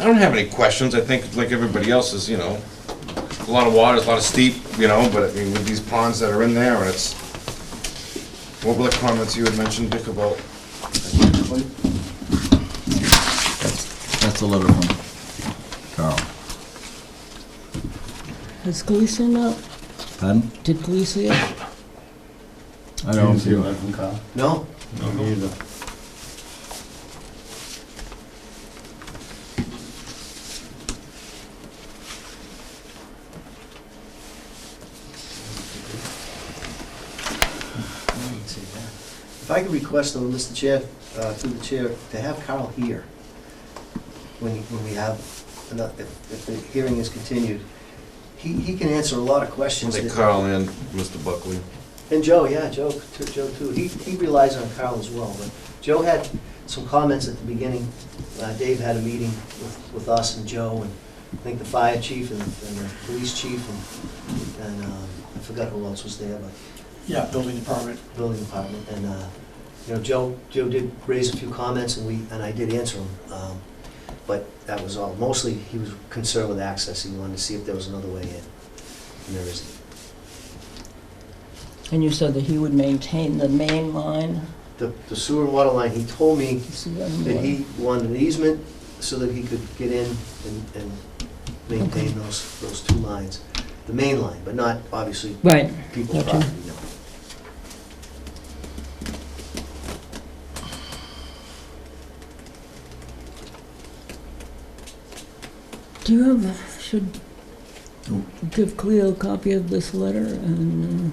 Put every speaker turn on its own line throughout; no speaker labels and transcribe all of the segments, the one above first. I don't have any questions, I think, like everybody else is, you know, a lot of water, it's a lot of steep, you know, but I mean, with these ponds that are in there, and it's, what were the comments you had mentioned, Dick, about?
That's the letter from Carl.
Is Gleason up?
Pardon?
Did Gleason?
I don't see
one from Carl?
No?
No, neither.
If I could request, though, Mr. Chair, uh, through the chair, to have Carl here when, when we have, ano- if if the hearing is continued. He, he can answer a lot of questions.
They
that-
Carl and Mr. Buckley.
And Joe, yeah, Joe, too- Joe too. He, he relies on Carl as well, but Joe had some comments at the beginning. Uh, Dave had a meeting with, with us and Joe and I think the fire chief and, and the police chief and, and, um, I forgot who else was there, but
Yeah, building department.
building department, and, uh, you know, Joe, Joe did raise a few comments, and we, and I did answer them, um, but that was all. Mostly, he was concerned with access, he wanted to see if there was another way in, and there isn't.
And you said that he would maintain the main line?
The the sewer and water line, he told me
Is the other
that
one?
he wanted an easement so that he could get in and, and maintain those, those two lines, the main line, but not, obviously,
Right,
people's
Gotcha.
property, no.
do you have, should
Oh.
give Cleo a copy of this letter and uh,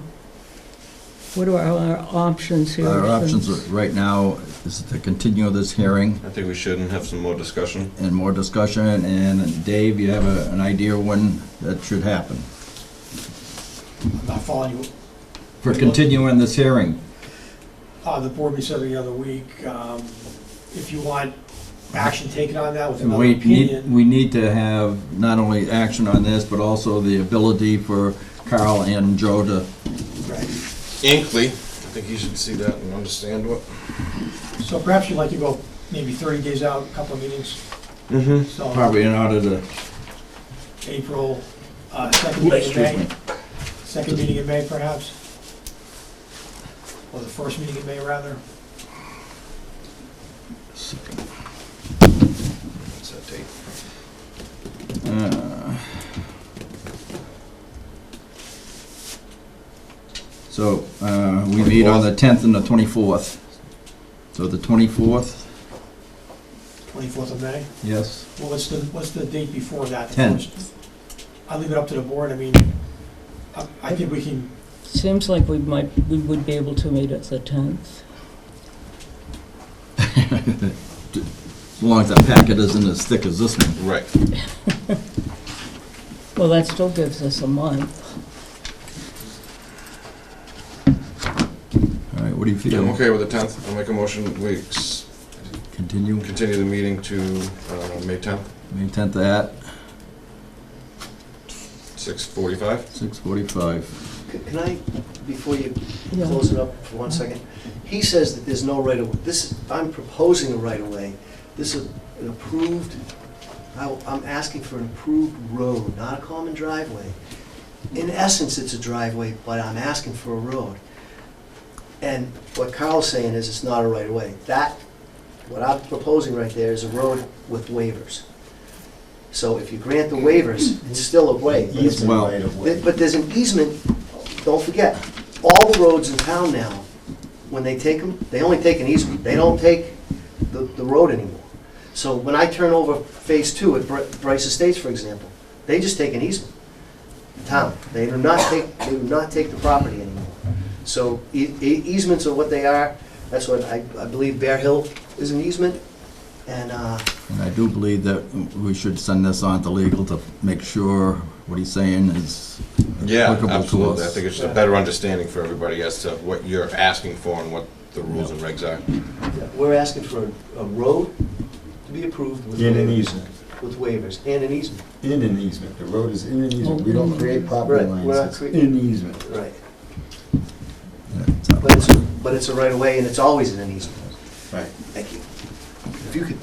what are our options here?
Our options
since-
are- right now is to continue this hearing
I think we should and have some more discussion.
and more discussion, and Dave, you have a- an idea when that should happen?
I'm not following you.
For continuing this hearing,
Uh, the board meets every other week. Um, if you want action taken on that with another
we need,
opinion,
we need to have not only action on this, but also the ability for Carl and Joe to,
right.
Inkley, I think you should see that and understand what.
So perhaps you'd like to go maybe thirty days out, a couple of meetings,
Mm-hmm.
so
probably in order to,
April, uh, second meeting
excuse
in May,
me,
second meeting in May perhaps? Or the first meeting in May rather?
What's that date?
Uh, So, uh, we meet on the 10th and the 24th. So the 24th?
Twenty-fourth of May?
Yes.
Well, what's the, what's the date before that? The
Ten.
first? I leave it up to the board, I mean, I, I think we can,
Seems like we might, we would be able to meet at the 10th.
As long as that packet isn't as thick as this one.
Right.
Well, that still gives us a month.
All right, what do you
I'm
feel?
okay with the 10th. I'll make a motion, we ex-
Continue,
continue the meeting to uh, May 10th,
May 10th at
6:45.
6:45.
C- Can I, before you
Yeah.
close it up for one second? He says that there's no right of, this, I'm proposing a right of way. This is an approved, I- I'm asking for an approved road, not a common driveway. In essence, it's a driveway, but I'm asking for a road. And what Carl's saying is it's not a right of way. That, what I'm proposing right there is a road with waivers. So if you grant the waivers, it's still a way. but it's a
Well-
right of way.
Th- But there's an easement, don't forget, all the roads in town now, when they take them, they only take an easement, they don't take the, the road anymore. So when I turn over phase two at Br- Bryce Estates, for example, they just take an easement, the town, they do not take, they do not take the property anymore. So e- e- easements are what they are, that's what I, I believe Bear Hill is an easement, and, uh,
And I do believe that we should send this on to legal to make sure what he's saying is
Yeah,
applicable to us.
absolutely. I think it's just a better understanding for everybody as to what you're asking for and what the rules and regs are.
we're asking for a- a road to be approved with
In an
waivers,
easement,
with waivers, and an easement.
in an easement, the road is in an easement, we don't create property
Right, we're
lines,
not
it's
crea-
in easement.
Right,
Yeah, so-
but it's, but it's a right-of-way, and it's always in an easement.
Right.
Thank you. If you could